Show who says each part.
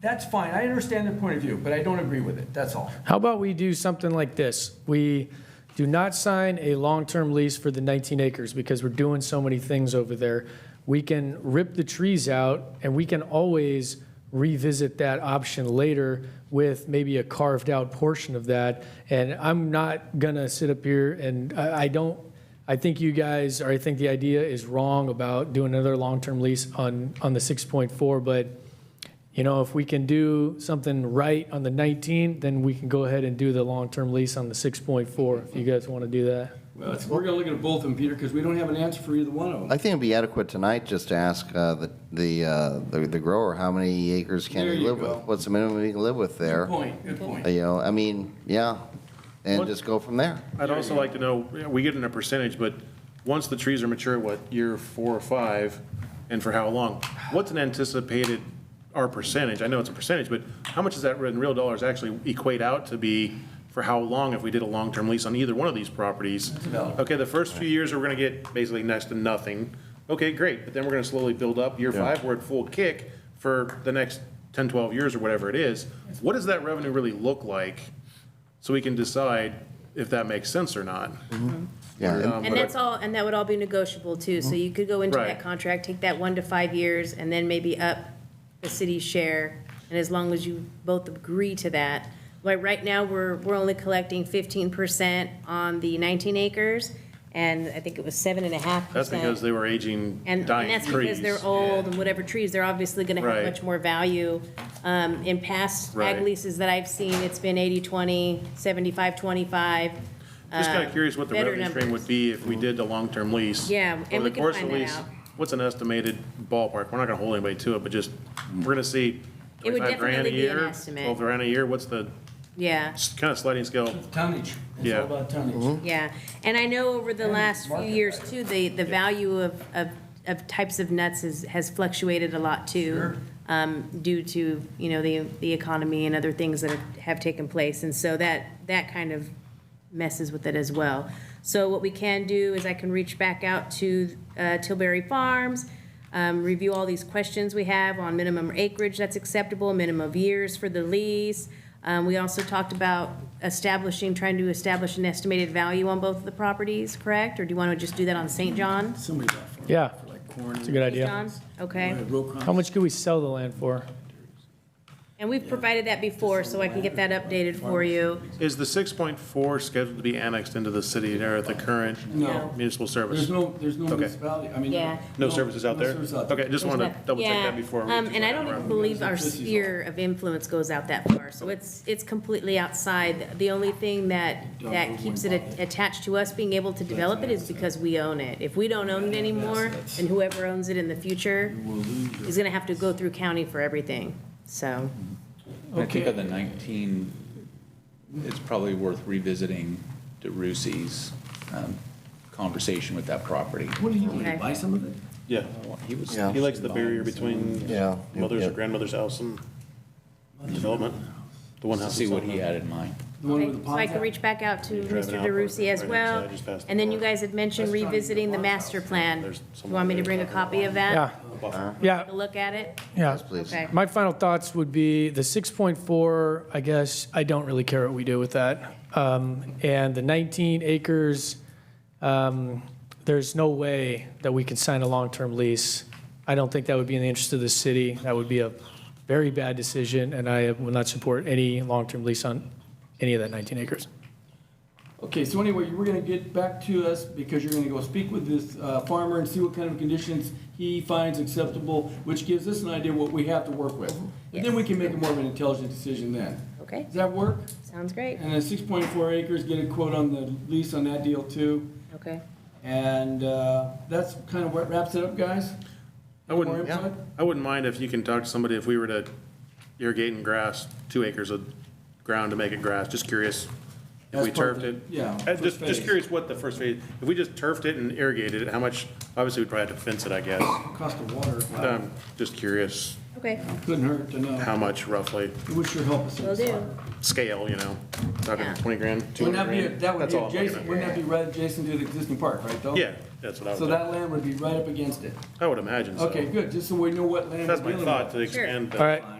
Speaker 1: That's fine. I understand their point of view, but I don't agree with it. That's all.
Speaker 2: How about we do something like this? We do not sign a long-term lease for the 19 acres because we're doing so many things over there. We can rip the trees out and we can always revisit that option later with maybe a carved-out portion of that. And I'm not gonna sit up here and I, I don't, I think you guys, or I think the idea is wrong about doing another long-term lease on, on the 6.4, but you know, if we can do something right on the 19, then we can go ahead and do the long-term lease on the 6.4, if you guys want to do that.
Speaker 3: Well, it's, we're gonna look at both of them, Peter, because we don't have an answer for either one of them.
Speaker 4: I think it'd be adequate tonight just to ask uh, the the uh, the the grower, how many acres can
Speaker 3: There
Speaker 4: he
Speaker 3: you
Speaker 4: live
Speaker 3: go.
Speaker 4: with? What's the minimum he can live with
Speaker 3: Good
Speaker 4: there?
Speaker 3: point, good point.
Speaker 4: You know, I mean, yeah, and
Speaker 5: What-
Speaker 4: just go from there.
Speaker 5: I'd also like to know, you know, we get in a percentage, but once the trees are mature, what, year four or five, and for how long? What's an anticipated, our percentage, I know it's a percentage, but how much does that in real dollars actually equate out to be for how long if we did a long-term lease on either one of these properties? Okay, the first few years, we're gonna get basically next to nothing. Okay, great, but then we're gonna slowly build up. Year five, we're at full kick for the next 10, 12 years or whatever it is. What does that revenue really look like? so we can decide if that makes sense or not. Um,
Speaker 4: Yeah,
Speaker 6: And that's all, and that would all be negotiable too, so you could go into
Speaker 5: Mm-hmm. Right.
Speaker 6: that contract, take that one to five years, and then maybe up the city's share, and as long as you both agree to that. Like, right now, we're, we're only collecting fifteen percent on the nineteen acres, and I think it was seven and a half percent.
Speaker 5: That's because they were aging,
Speaker 6: And and
Speaker 5: dying
Speaker 6: that's
Speaker 5: trees.
Speaker 6: because they're old and whatever trees, they're obviously gonna have
Speaker 5: Right.
Speaker 6: much more value. Um, in past ag
Speaker 5: Right.
Speaker 6: leases that I've seen, it's been 80-20, 75-25.
Speaker 5: Just kind of curious what the
Speaker 6: uh, better
Speaker 5: revenue stream
Speaker 6: numbers.
Speaker 5: would be if we did a long-term lease.
Speaker 6: Yeah, and
Speaker 5: Over the
Speaker 6: we can
Speaker 5: course of
Speaker 6: find
Speaker 5: the
Speaker 6: that
Speaker 5: lease,
Speaker 6: out.
Speaker 5: What's an estimated ballpark? We're not gonna hold anybody to it, but just, we're gonna see
Speaker 6: It would
Speaker 5: twenty-five grand
Speaker 6: definitely
Speaker 5: a
Speaker 6: be an
Speaker 5: year,
Speaker 6: estimate.
Speaker 5: twelve grand a year, what's the,
Speaker 6: Yeah,
Speaker 5: kind of sliding scale?
Speaker 3: Tonnage, it's
Speaker 5: Yeah.
Speaker 3: all about
Speaker 4: Mm-hmm.
Speaker 3: tonnage.
Speaker 6: yeah. And I know over the last few
Speaker 3: market
Speaker 6: years too, the, the value of, of, of types of nuts has, has fluctuated a lot too.
Speaker 3: Sure.
Speaker 6: Um, due to, you know, the, the economy and other things that have- have taken place. And so that, that kind of messes with it as well. So what we can do is I can reach back out to uh, Tilbury Farms, um, review all these questions we have on minimum acreage that's acceptable, minimum of years for the lease. Um, We also talked about establishing, trying to establish an estimated value on both of the properties, correct? Or do you want to just do that on St. John?
Speaker 3: Somebody got farm
Speaker 2: Yeah,
Speaker 3: for like corn.
Speaker 2: it's a good idea.
Speaker 6: John? Okay.
Speaker 2: How much could we sell the land for?
Speaker 6: And we've provided that before, so I can get that updated for you.
Speaker 5: Is the six point four scheduled to be annexed into the city or the current
Speaker 3: No.
Speaker 5: municipal
Speaker 3: There's
Speaker 5: service?
Speaker 3: no, there's no
Speaker 5: Okay.
Speaker 3: municipality, I mean.
Speaker 6: Yeah.
Speaker 5: No services out
Speaker 3: no
Speaker 5: there?
Speaker 3: service out there.
Speaker 5: Okay, just wanted to double check
Speaker 6: Yeah.
Speaker 5: that before. we
Speaker 6: Um,
Speaker 5: do
Speaker 6: And I
Speaker 5: that round.
Speaker 6: don't believe our
Speaker 3: This is all-
Speaker 6: sphere of influence goes out that far, so it's, it's completely outside. The only thing that, that keeps it a- attached to us being able to develop it is because we own it. If we don't own it anymore, then whoever owns it in the future is gonna have to go through county for everything, so.
Speaker 7: I think on the 19, it's probably worth revisiting DeRussi's um, conversation with that property.
Speaker 3: What do you want to
Speaker 6: Okay.
Speaker 3: buy some of it?
Speaker 5: Yeah,
Speaker 7: He was,
Speaker 4: Yeah.
Speaker 5: he likes the barrier between
Speaker 4: Yeah.
Speaker 5: mother's
Speaker 4: Yeah.
Speaker 5: or grandmother's house and development, the one
Speaker 7: to
Speaker 5: house.
Speaker 7: see what
Speaker 5: that's
Speaker 7: he
Speaker 5: on
Speaker 7: had in mind.
Speaker 3: The one with the
Speaker 6: So I
Speaker 3: ponds
Speaker 6: can
Speaker 3: out?
Speaker 6: reach back out to
Speaker 5: You're driving
Speaker 6: Mr.
Speaker 5: out
Speaker 6: DeRusi
Speaker 5: right
Speaker 6: as
Speaker 5: inside,
Speaker 6: well.
Speaker 5: just past the
Speaker 6: And then
Speaker 5: door.
Speaker 6: you guys had mentioned revisiting the master plan.
Speaker 5: There's
Speaker 6: You want me to bring a copy of that?
Speaker 2: Yeah,
Speaker 5: the buffer.
Speaker 2: yeah,
Speaker 6: Take a look at it?
Speaker 2: yeah.
Speaker 4: please.
Speaker 6: Okay.
Speaker 2: My final thoughts would be the 6.4, I guess, I don't really care what we do with that. Um, And the 19 acres, um, there's no way that we can sign a long-term lease. I don't think that would be in the interest of the city. That would be a very bad decision, and I will not support any long-term lease on any of that 19 acres.
Speaker 3: Okay, so anyway, you were gonna get back to us because you're gonna go speak with this uh, farmer and see what kind of conditions he finds acceptable, which gives us an idea what we have to work with. And then we can make a more of an intelligent decision then.
Speaker 6: Okay,
Speaker 3: Does that work?
Speaker 6: sounds great.
Speaker 3: And then six point four acres, get a quote on the lease on that deal too.
Speaker 6: Okay.
Speaker 3: And uh, that's kind of what wraps it up, guys.
Speaker 5: I wouldn't,
Speaker 3: More input?
Speaker 5: I wouldn't mind if you can talk to somebody, if we were to irrigate and grass, two acres of ground to make it grass, just curious. If
Speaker 3: As
Speaker 5: we
Speaker 3: part of
Speaker 5: turfed
Speaker 3: the-
Speaker 5: it.
Speaker 3: yeah,
Speaker 5: Uh, Just,
Speaker 3: first phase.
Speaker 5: just curious what the first phase, if we just turfed it and irrigated it, how much, obviously we'd probably have to fence it, I guess.
Speaker 3: Cost of water,
Speaker 5: But
Speaker 3: wow,
Speaker 5: I'm just curious
Speaker 6: Okay,
Speaker 3: couldn't hurt to know.
Speaker 5: um, how much roughly,
Speaker 3: It would sure help us.
Speaker 6: will do.
Speaker 5: scale, you know, talking
Speaker 6: Yeah.
Speaker 5: twenty grand, two
Speaker 3: Wouldn't
Speaker 5: hundred
Speaker 3: that be,
Speaker 5: grand.
Speaker 3: that would
Speaker 5: That's
Speaker 3: be
Speaker 5: all I'm looking
Speaker 3: adjacent,
Speaker 5: at.
Speaker 3: wouldn't that be right adjacent to the existing park, right though?
Speaker 5: Yeah, that's what I
Speaker 3: So
Speaker 5: would,
Speaker 3: that land would be right up against it.
Speaker 5: I would imagine so.
Speaker 3: Okay, good, just so we know what land we're
Speaker 5: That's my
Speaker 3: dealing
Speaker 5: thought,
Speaker 3: with.
Speaker 5: to expand
Speaker 2: All
Speaker 5: the
Speaker 2: right,